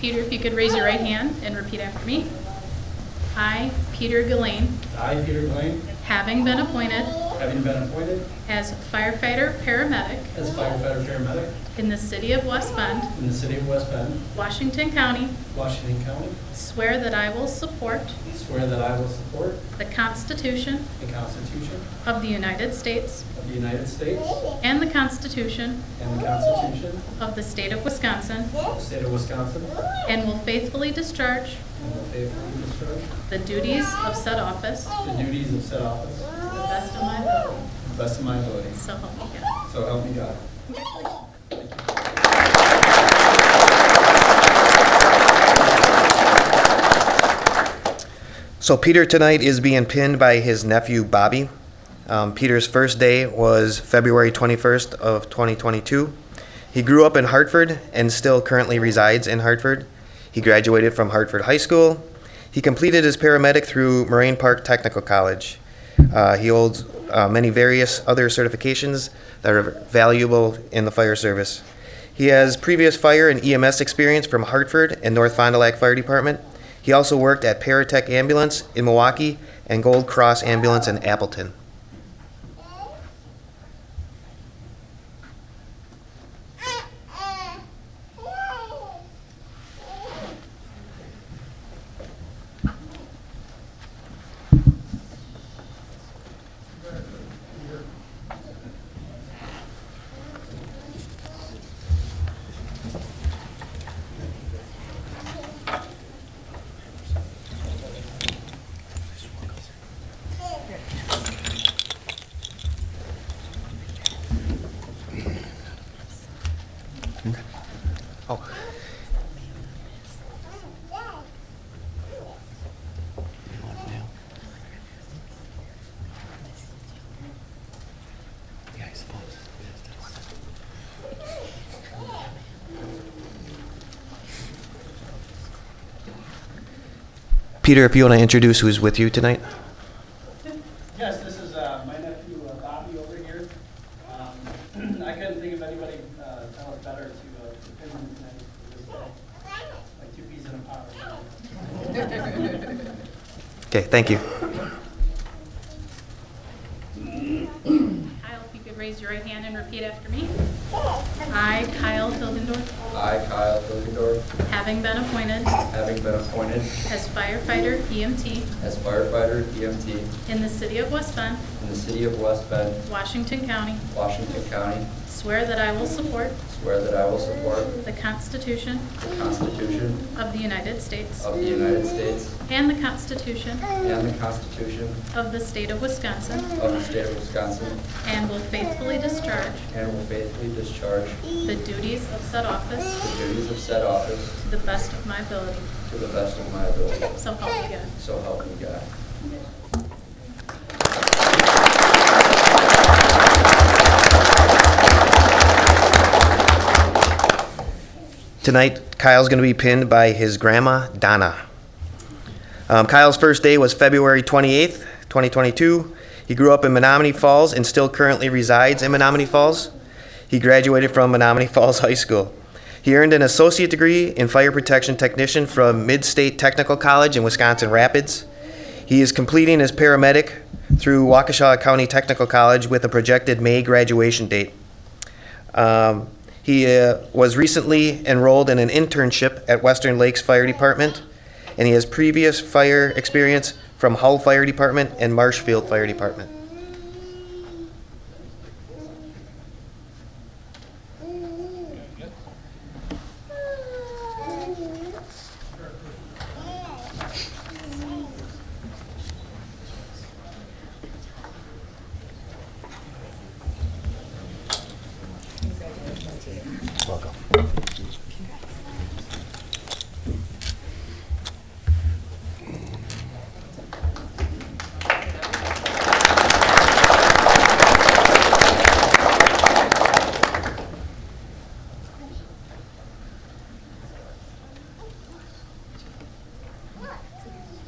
Peter, if you could raise your right hand and repeat after me. I, Peter Gillane, I, Peter Blaine, having been appointed having been appointed as firefighter paramedic as firefighter paramedic in the city of West Bend, in the city of West Bend, Washington County, Washington County, swear that I will support swear that I will support the Constitution the Constitution of the United States of the United States and the Constitution and the Constitution of the state of Wisconsin, of the state of Wisconsin, and will faithfully discharge and will faithfully discharge the duties of said office to the duties of said office the best of my ability. to the best of my ability. So help me God. So help me God. So Peter tonight is being pinned by his nephew Bobby. Um, Peter's first day was February 21st of 2022. He grew up in Hartford and still currently resides in Hartford. He graduated from Hartford High School. He completed his paramedic through Moraine Park Technical College. Uh, he holds uh, many various other certifications that are valuable in the fire service. He has previous fire and EMS experience from Hartford and North Fond du Lac Fire Department. He also worked at Paratech Ambulance in Milwaukee and Gold Cross Ambulance in Appleton. Peter, if you want to introduce who's with you tonight. Yes, this is uh, my nephew uh, Bobby over here. Um, I couldn't think of anybody uh, tell it better to uh, to pin him tonight. It was, uh, Like two peas in a pod. Okay, thank you. Kyle, if you could raise your right hand and repeat after me. I, Kyle Hildendorf, I, Kyle Hilgendorf, having been appointed having been appointed as firefighter EMT as firefighter EMT in in the city of West Bend, the city of West Bend, Washington County, Washington County, swear that I will support swear that I will support the Constitution the Constitution of the United States of the United States and the Constitution and the Constitution of the state of Wisconsin, of the state of Wisconsin, and will faithfully discharge and will faithfully discharge the duties of said office the duties of said office to the best of my ability. to the best of my ability. So help me God. So help me God. Tonight, Kyle's going to be pinned by his grandma, Donna. Um, Kyle's first day was February 28th, 2022. He grew up in Menominee Falls and still currently resides in Menominee Falls. He graduated from Menominee Falls High School. He earned an associate degree in fire protection technician from Mid State Technical College in Wisconsin Rapids. He is completing his paramedic through Waukesha County Technical College with a projected May graduation date. Um, he uh, was recently enrolled in an internship at Western Lakes Fire Department, and he has previous fire experience from Hull Fire Department and Marshfield Fire Department.